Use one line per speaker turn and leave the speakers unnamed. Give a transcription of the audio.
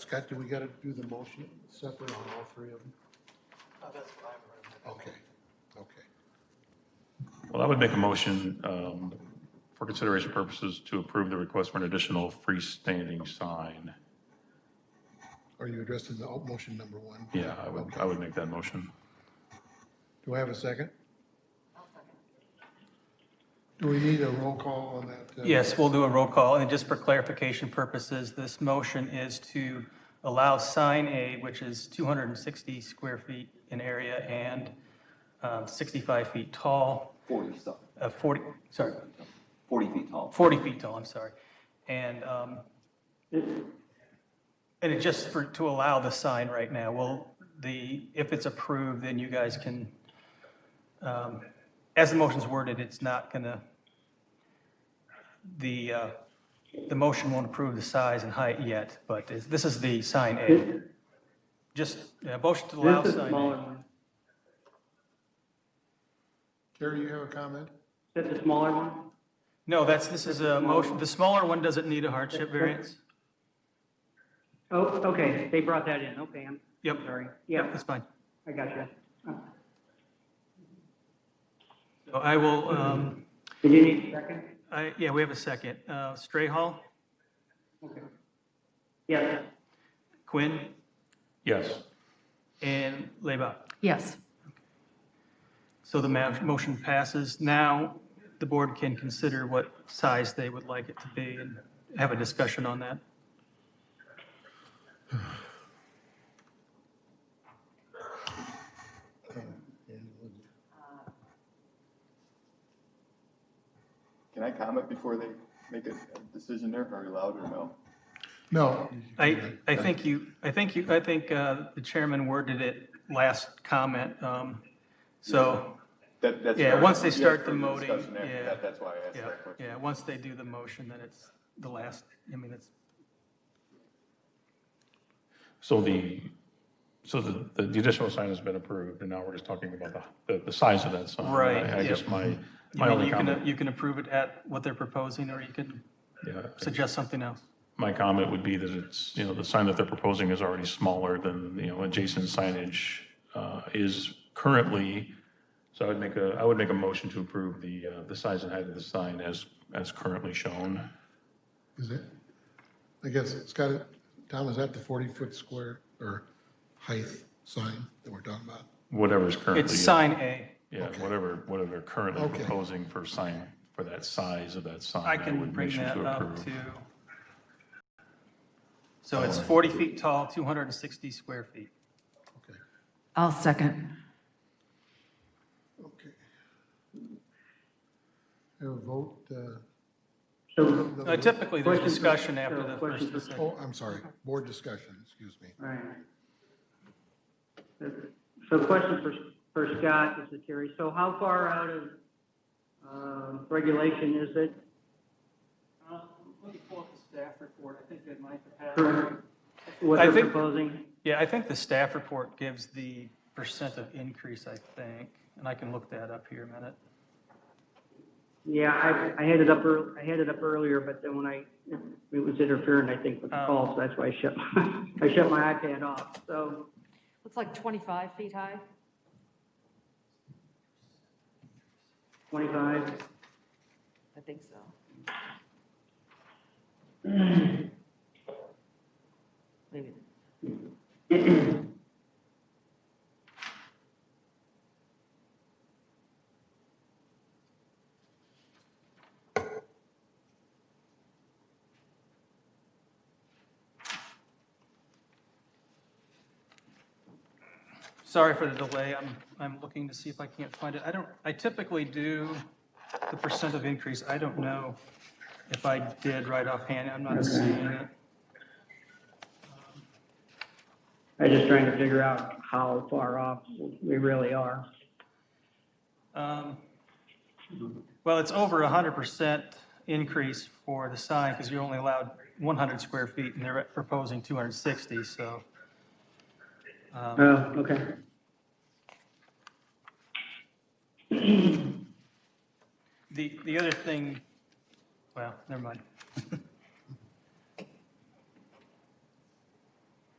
Scott, do we got to do the motion separate on all three of them?
Oh, that's what I've
Okay, okay.
Well, I would make a motion um, for consideration purposes to approve the request for an additional freestanding sign.
Are you addressing the oh, motion number one?
Yeah, I would, I would make that motion.
Do I have a second? Do we need a roll call on that? uh,
Yes, we'll do a roll call, and just for clarification purposes, this motion is to allow sign A, which is 260 square feet in area and um, 65 feet tall,
40 stuff,
uh, 40, sorry,
40 feet tall.
40 feet tall, I'm sorry. And, um, and it just for, to allow the sign right now, well, the, if it's approved, then you guys can, um, as the motion's worded, it's not gonna, the, uh, the motion won't approve the size and height yet, but is- this is the sign A. Just, yeah, motion to allow
This is
sign A.
smaller,
Terry, you have a comment?
that's a smaller one?
No, that's, this is a motion, the smaller one doesn't need a hardship variance.
Oh, okay, they brought that in, okay, I'm
Yep,
sorry.
yep,
Yeah,
that's fine.
I got you.
So I will, um,
Did you need a second?
I, yeah, we have a second. Uh, Strayhall,
Yes,
Quinn,
Yes.
and Leba.
Yes.
So the ma- motion passes. Now, the board can consider what size they would like it to be and have a discussion on that.
Can I comment before they make a a decision there? Are you allowed or no?
No.
I, I think you, I think you, I think uh, the chairman worded it last comment. um, So,
That, that's.
Yeah,
fair.
once they
We have
start the
further
moating,
discussion after
yeah.
that. That's why I asked
yeah,
that question.
yeah, once they do the motion, then it's the last, I mean, it's,
So the, so the, the the additional sign has been approved, and now we're just talking about the- the, the size of that sign.
Right,
I- I
yep.
guess my,
I
my
mean,
only
you can,
comment,
you can approve it at what they're proposing, or you can
yeah,
suggest something else.
my comment would be that it's, you know, the sign that they're proposing is already smaller than, you know, adjacent signage uh, is currently. So I would make a, I would make a motion to approve the, uh, the size and height of the sign as, as currently shown.
Is it? I guess, Scott, Tom, is that the 40-foot square or height sign that we're talking about?
Whatever is currently.
It's sign A.
Yeah, whatever, whatever they're currently
Okay.
proposing for sign, for that size of that sign.
I can
would
bring
motion
that up
approve.
to. So it's 40 feet tall, 260 square feet.
Okay,
I'll second.
okay. Have a vote, uh,
so,
Uh, Typically, there's
Questions for-
discussion after
so
the
questions
first and
for-
second.
oh, I'm sorry, board discussion, excuse me.
all right. So question for, for Scott, this is Terry, so how far out of, um, regulation is it?
Uh, Let me pull up the staff report, I think that might
for What
I
they're
think-
proposing?
Yeah, I think the staff report gives the percent of increase, I think, and I can look that up here a minute.
Yeah, I, I had it up, ear- I had it up earlier, but then when I, it was interfering, I think, with the
Oh.
call, so that's why I shut, I shut my iPad off, so.
Looks like 25 feet high.
25,
I think so. Maybe.
Sorry for the delay, I'm, I'm looking to see if I can't find it. I don't, I typically do the percent of increase, I don't know if I did right offhand, I'm not seeing it.
I'm just trying to figure out how far off we really are.
Um, Well, it's over a hundred percent increase for the sign, because you're only allowed one hundred square feet, and they're proposing two hundred and sixty, so.
Oh, okay.
The, the other thing, well, never mind.